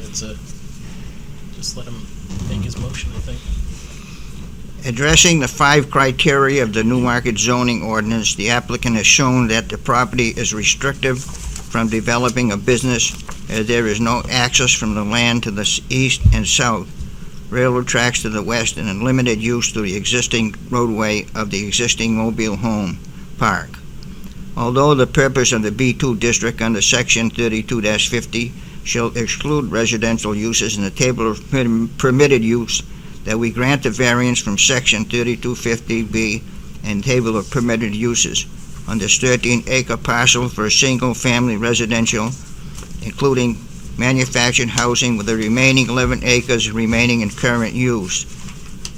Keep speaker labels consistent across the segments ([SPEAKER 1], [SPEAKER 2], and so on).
[SPEAKER 1] it's a, just let him make his motion, I think.
[SPEAKER 2] Addressing the five criteria of the New Market zoning ordinance, the applicant has shown that the property is restrictive from developing a business, as there is no access from the land to the s- east and south, railroad tracks to the west, and a limited use to the existing roadway of the existing mobile home park. Although the purpose of the B2 district under section 32-50 shall exclude residential uses in the table of perm- permitted use that we grant the variance from section 3250B and table of permitted uses on this 13-acre parcel for a single-family residential, including manufactured housing with the remaining 11 acres remaining in current use.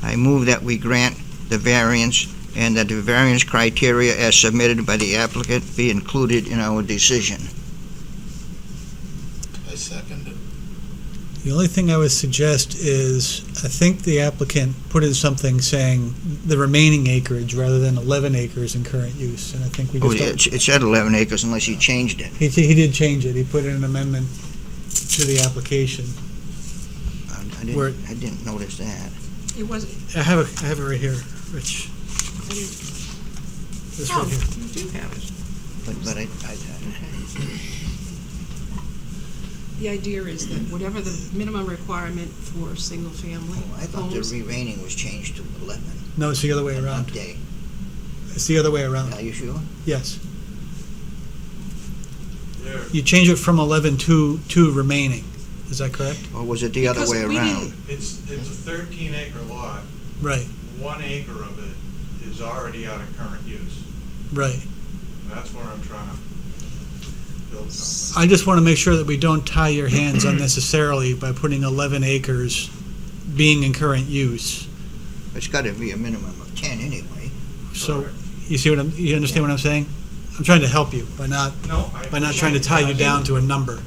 [SPEAKER 2] I move that we grant the variance and that the variance criteria as submitted by the applicant be included in our decision.
[SPEAKER 3] I second it.
[SPEAKER 4] The only thing I would suggest is, I think the applicant put in something saying the remaining acreage rather than 11 acres in current use, and I think we
[SPEAKER 2] Oh,
[SPEAKER 4] just,
[SPEAKER 2] it's-
[SPEAKER 4] don't-
[SPEAKER 2] It said 11 acres unless you changed it.
[SPEAKER 4] he, he did change it, he put in an amendment to the application.
[SPEAKER 2] I I
[SPEAKER 4] Where-
[SPEAKER 2] didn't, I didn't notice that.
[SPEAKER 5] It was,
[SPEAKER 4] I have it, I have it right here, Rich. This
[SPEAKER 5] oh,
[SPEAKER 4] right here.
[SPEAKER 5] you do have it.
[SPEAKER 2] But, but I, I,
[SPEAKER 5] The idea is that whatever the minimum requirement for single-family
[SPEAKER 2] Oh, I thought the
[SPEAKER 5] homes,
[SPEAKER 2] re-rating was changed to eleven.
[SPEAKER 4] No, it's the other way around,
[SPEAKER 2] Update.
[SPEAKER 4] it's the other way around,
[SPEAKER 2] Are you sure?
[SPEAKER 4] yes. You change it from 11 to, to remaining, is that correct?
[SPEAKER 2] Or was it the other
[SPEAKER 5] Because
[SPEAKER 2] way
[SPEAKER 5] we
[SPEAKER 2] around?
[SPEAKER 6] It's, it's a thirteen acre lot,
[SPEAKER 4] Right,
[SPEAKER 6] one acre of it is already out of current use.
[SPEAKER 4] right.
[SPEAKER 6] That's where I'm trying to build something.
[SPEAKER 4] I just want to make sure that we don't tie your hands unnecessarily by putting 11 acres being in current use.
[SPEAKER 2] It's gotta be a minimum of ten anyway.
[SPEAKER 4] So,
[SPEAKER 6] Correct.
[SPEAKER 4] you see what I'm, you understand what I'm saying? I'm trying to help you by not,
[SPEAKER 6] No, I.
[SPEAKER 4] by not trying to tie you down to a number.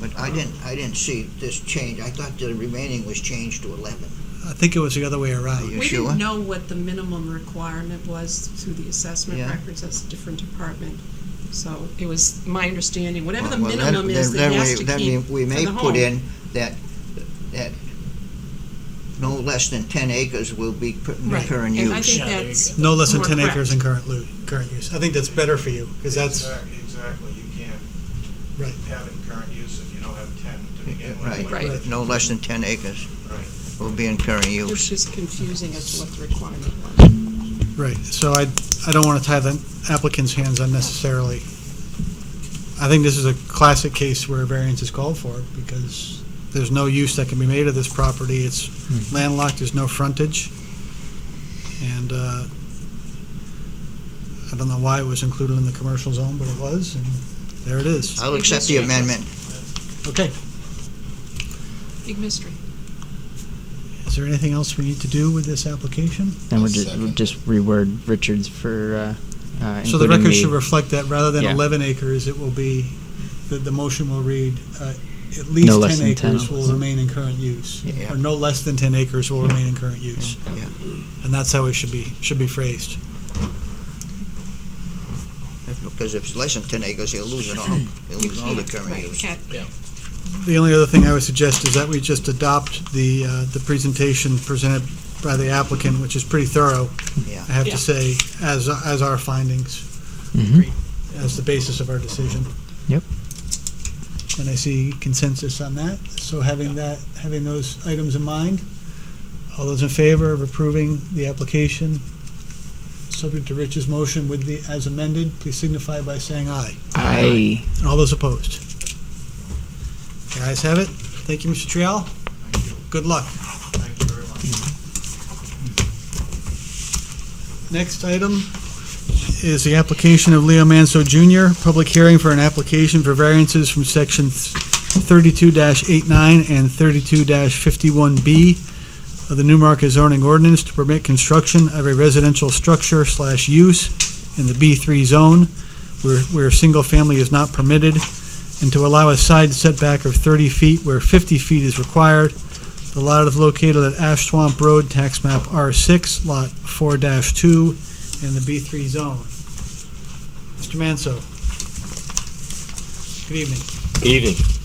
[SPEAKER 2] But I didn't, I didn't see this change. I thought the remaining was changed to eleven.
[SPEAKER 4] I think it was the other way around.
[SPEAKER 2] you
[SPEAKER 5] we
[SPEAKER 2] sure?
[SPEAKER 5] didn't know what the minimum requirement was through the assessment
[SPEAKER 2] Yeah.
[SPEAKER 5] records, that's a different department. So it was my understanding, whatever the
[SPEAKER 2] Well, then-
[SPEAKER 5] minimum is
[SPEAKER 2] then
[SPEAKER 5] that he has
[SPEAKER 2] we-
[SPEAKER 5] to
[SPEAKER 2] then we-
[SPEAKER 5] keep
[SPEAKER 2] We may
[SPEAKER 5] for the
[SPEAKER 2] put
[SPEAKER 5] home.
[SPEAKER 2] in that, that no less than ten acres will be put in the
[SPEAKER 5] Right.
[SPEAKER 2] current
[SPEAKER 5] And I
[SPEAKER 2] use.
[SPEAKER 5] think
[SPEAKER 1] Yeah, there you
[SPEAKER 5] that's.
[SPEAKER 4] No less than
[SPEAKER 5] more
[SPEAKER 4] 10
[SPEAKER 5] correct.
[SPEAKER 4] acres in current lu, current use. I think that's better for you, because that's,
[SPEAKER 6] Exact- Exactly, you can't
[SPEAKER 4] Right.
[SPEAKER 6] have it in current use if you don't have ten to begin with.
[SPEAKER 2] Right.
[SPEAKER 5] Right.
[SPEAKER 2] No less than ten acres
[SPEAKER 6] Right.
[SPEAKER 2] will be in current
[SPEAKER 5] It
[SPEAKER 2] use.
[SPEAKER 5] was just confusing as to what the requirement was.
[SPEAKER 4] right. So I, I don't want to tie the applicant's hands unnecessarily. I think this is a classic case where a variance is called for, because there's no use that can be made of this property. It's landlocked, there's no frontage. And, uh, I don't know why it was included in the commercial zone, but it was, and there it is.
[SPEAKER 2] I'll accept the amendment.
[SPEAKER 4] Okay.
[SPEAKER 5] Big mystery.
[SPEAKER 4] Is there anything else we need to do with this application?
[SPEAKER 7] And we'll
[SPEAKER 3] I'll
[SPEAKER 7] just, we'll
[SPEAKER 3] second.
[SPEAKER 7] just reword Richards for, uh, uh,
[SPEAKER 4] So the
[SPEAKER 7] including
[SPEAKER 4] record should reflect that rather than
[SPEAKER 7] Yeah.
[SPEAKER 4] 11 acres, it will be, the, the motion will read, uh, at least
[SPEAKER 7] No less
[SPEAKER 4] 10
[SPEAKER 7] than 10.
[SPEAKER 4] acres will remain in current use.
[SPEAKER 2] Yeah.
[SPEAKER 4] Or no less than 10 acres will remain in current use.
[SPEAKER 2] Yeah.
[SPEAKER 4] And that's how it should be, should be phrased.
[SPEAKER 2] Because if it's less than ten acres, you'll lose it all. You'll
[SPEAKER 5] You
[SPEAKER 2] lose all the
[SPEAKER 5] can't,
[SPEAKER 2] current
[SPEAKER 5] right,
[SPEAKER 2] use.
[SPEAKER 5] can't
[SPEAKER 4] The only other thing I would suggest is that we just adopt the, uh, the presentation presented by the applicant, which is pretty thorough,
[SPEAKER 2] Yeah.
[SPEAKER 4] I have
[SPEAKER 5] Yeah.
[SPEAKER 4] to say, as, as our findings,
[SPEAKER 7] Mhm.
[SPEAKER 4] as the basis of our decision.
[SPEAKER 7] Yep.
[SPEAKER 4] And I see consensus on that. So having that, having those items in mind, all those in favor of approving the application, subject to Rich's motion with the, as amended, please signify by saying aye.
[SPEAKER 7] I.
[SPEAKER 4] And all those opposed? The ayes have it. Thank you, Mr. Trial. Good luck.
[SPEAKER 6] Thank you very much.
[SPEAKER 4] Next item is the application of Leo Manso Jr., public hearing for an application for variances from section thirty-two 89 and thirty-two fifty-one B of the Newmarket zoning ordinance to permit construction of a residential structure slash use in the B three zone where, where single-family is not permitted, and to allow a side setback of thirty feet where fifty feet is required the lot is located at Ash Swamp Road, tax map R6, lot 4-2, in the B3 zone. Mr. Manso. Good evening.
[SPEAKER 8] Evening.